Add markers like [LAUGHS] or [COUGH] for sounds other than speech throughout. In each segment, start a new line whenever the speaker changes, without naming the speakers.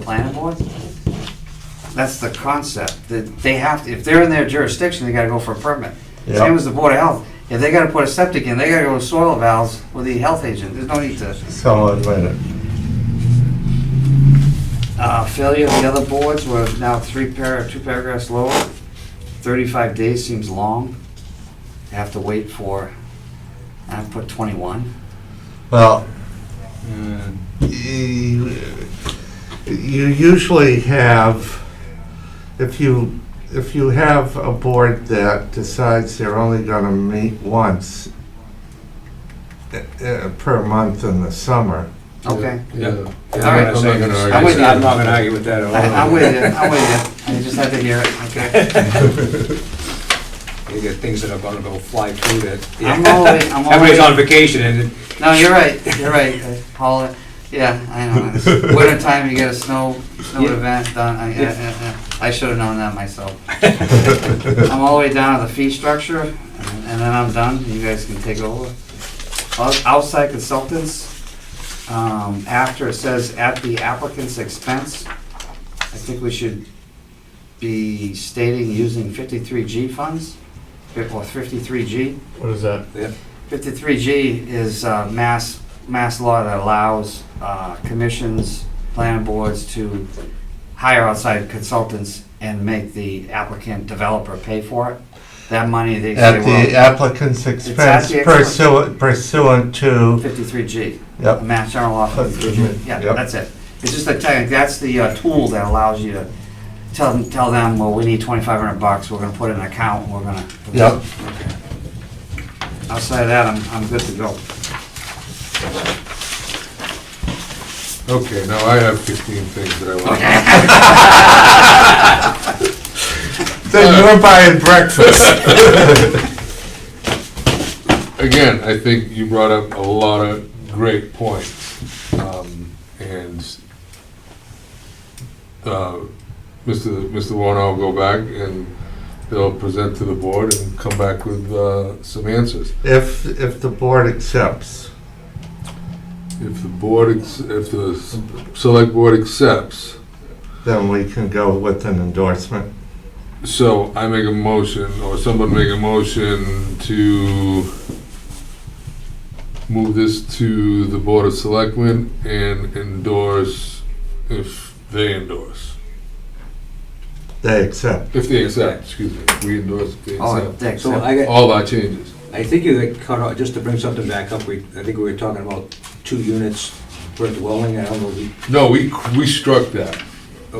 planning board? That's the concept, that they have, to if they're in their jurisdiction, they gotta go for a permit.
Yeah.
Same as the Board of Health, if they gotta put a septic in, they gotta go to soil valves with the health agent, there's no need to,
So, wait a minute.
uh, failure of the other boards, we're now three par, two paragraphs lower. Thirty-five days seems long, You have to wait for, I put twenty-one.
Well, you you usually have, if you, if you have a board that decides they're only gonna meet once uh, uh, per month in the summer,
Okay,
Yeah.
All right.
I'm not gonna
I'm with
argue,
you.
I'm not gonna argue with that
I-
at
I'm
all.
with you, I'm with you, I just had to hear it, okay.
You get things that are gonna go fly through that.
I'm always- I'm
Everybody's
always-
on vacation and
No, you're right. You're right. I haul it. Yeah, I know. It's winter time, you get a snow snow
Yeah.
event done. I, I, I, I should have known that myself. I'm all the way down to the fee structure, and, and then I'm done. You guys can take over. Out- Outside consultants. Um, after it says at the applicant's expense, I think we should be stating using 53G funds or 53G.
What is that?
Fifty-three G is uh, mass, mass law that allows uh, commissions, planning boards to hire outside consultants and make the applicant developer pay for it. That money, they say,
at the
well,
applicant's expense
the applicant's-
pursuant pursuant to,
fifty-three G,
yep,
mass general law fifty-three G. Yeah,
Yep.
that's it. It's just a tech, that's the uh, tool that allows you to tell, them- tell them, well, we need twenty-five hundred bucks, we're gonna put in an account, and we're gonna.
Yep.
Outside of that, I'm, I'm good to go.
Okay, now I have 15 things that I want.
then you're buying breakfast.
Again, I think you brought up a lot of great points. Um, And uh, Mr. Mr. Warner will go back and they'll present to the board and come back with uh, some answers.
[LAUGHS] If, if the board accepts.
If the board, ex- if the s- select board accepts,
then we can go with an endorsement.
so I make a motion, or someone make a motion to move this to the Board of Selectmen and endorse if they endorse.
They accept.
If they accept, excuse me, we endorse if they
All right,
accept.
Oh, thanks.
So I got,
All our changes.
I think you got cut off, just to bring something back up, we, I think we were talking about two units per dwelling, I don't know, we,
No, we, we struck that.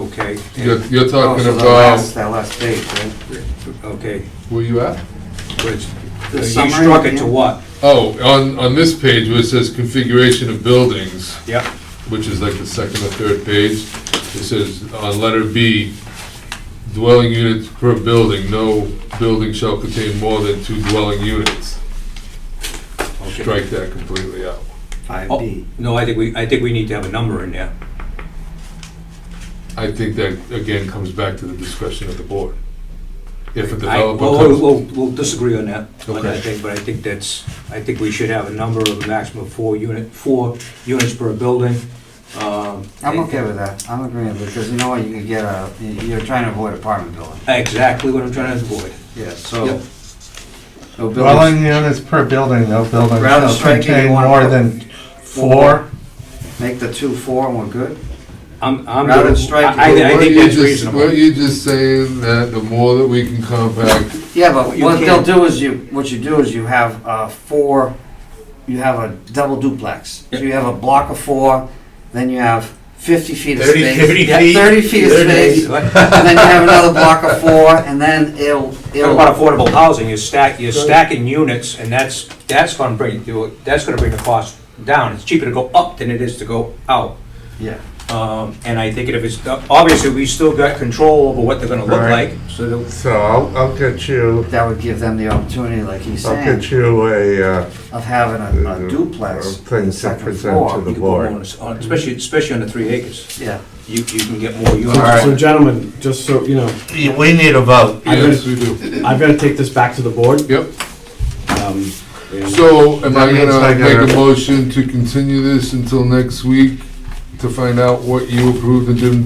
okay.
You're, you're
Oh,
talking
so the
about,
last- That last date, right?
Okay,
where you at?
which,
The
you
summary
struck it
again?
to what?
Oh, on, on this page where it says configuration of buildings.
Yep.
which is like the second or third page, it says on letter B, dwelling units per building, no building shall contain more than two dwelling units.
Okay.
Strike that completely out.
Five
Oh,
B.
No, I think we, I think we need to have a number in there.
I think that, again, comes back to the discretion of the board. If a
I, well,
developer
we'll,
comes,
we'll- we'll disagree on that, on
Okay.
that thing, but I think that's, I think we should have a number of a maximum of four unit, four units per building. Um,
I'm okay with that, I'm agreeing, because you know what, you could get a, you're trying to avoid apartment building.
Exactly what I'm trying to avoid.
Yeah, so.
Yep.
No buildings.
Dwelling units per building, no building
Rather
shall
striking, you
contain
wanna
more
put
than four.
Make the two four and we're good?
I'm, I'm.
Rather
good.
striking.
I, I- I
Weren't
think
you
that's
just-
reasonable.
Weren't you just saying that the more that we can compact,
Yeah, but
You
what they'll
can't-
do is you, what you do is you have uh four, you have a double duplex. So you have a block of four, then you have fifty feet of
30,
space.
30
Yeah,
feet.
Thirty feet of space,
What
and then you have another block of four, and then it'll, it'll.
about affordable housing, you're stack, you're stacking units, and that's, that's gonna bring, you- that's gonna bring the cost down. It's cheaper to go up than it is to go out.
Yeah.
Um, and I think if it's, obviously, we still got control over what they're gonna look
Right.
like, so that
So I'll, I'll get you,
That would give them the opportunity, like he's
I'll
saying,
get you a, uh,
of having
Uh,
a a
uh,
duplex
things
on the
to
second
present to
floor.
the-
You can put more
board.
on this- on- Especially, especially on the three acres,
Yeah.
you, you can get more units.
So gentlemen, just so, you know,
we need a vote.
I'm gonna-
yes, we do.
I've gotta take this back to the board.
Yep.
Um, and-
So am
That
I
means I
gonna
gotta-
make a motion to continue this until next week to find out what you approved and didn't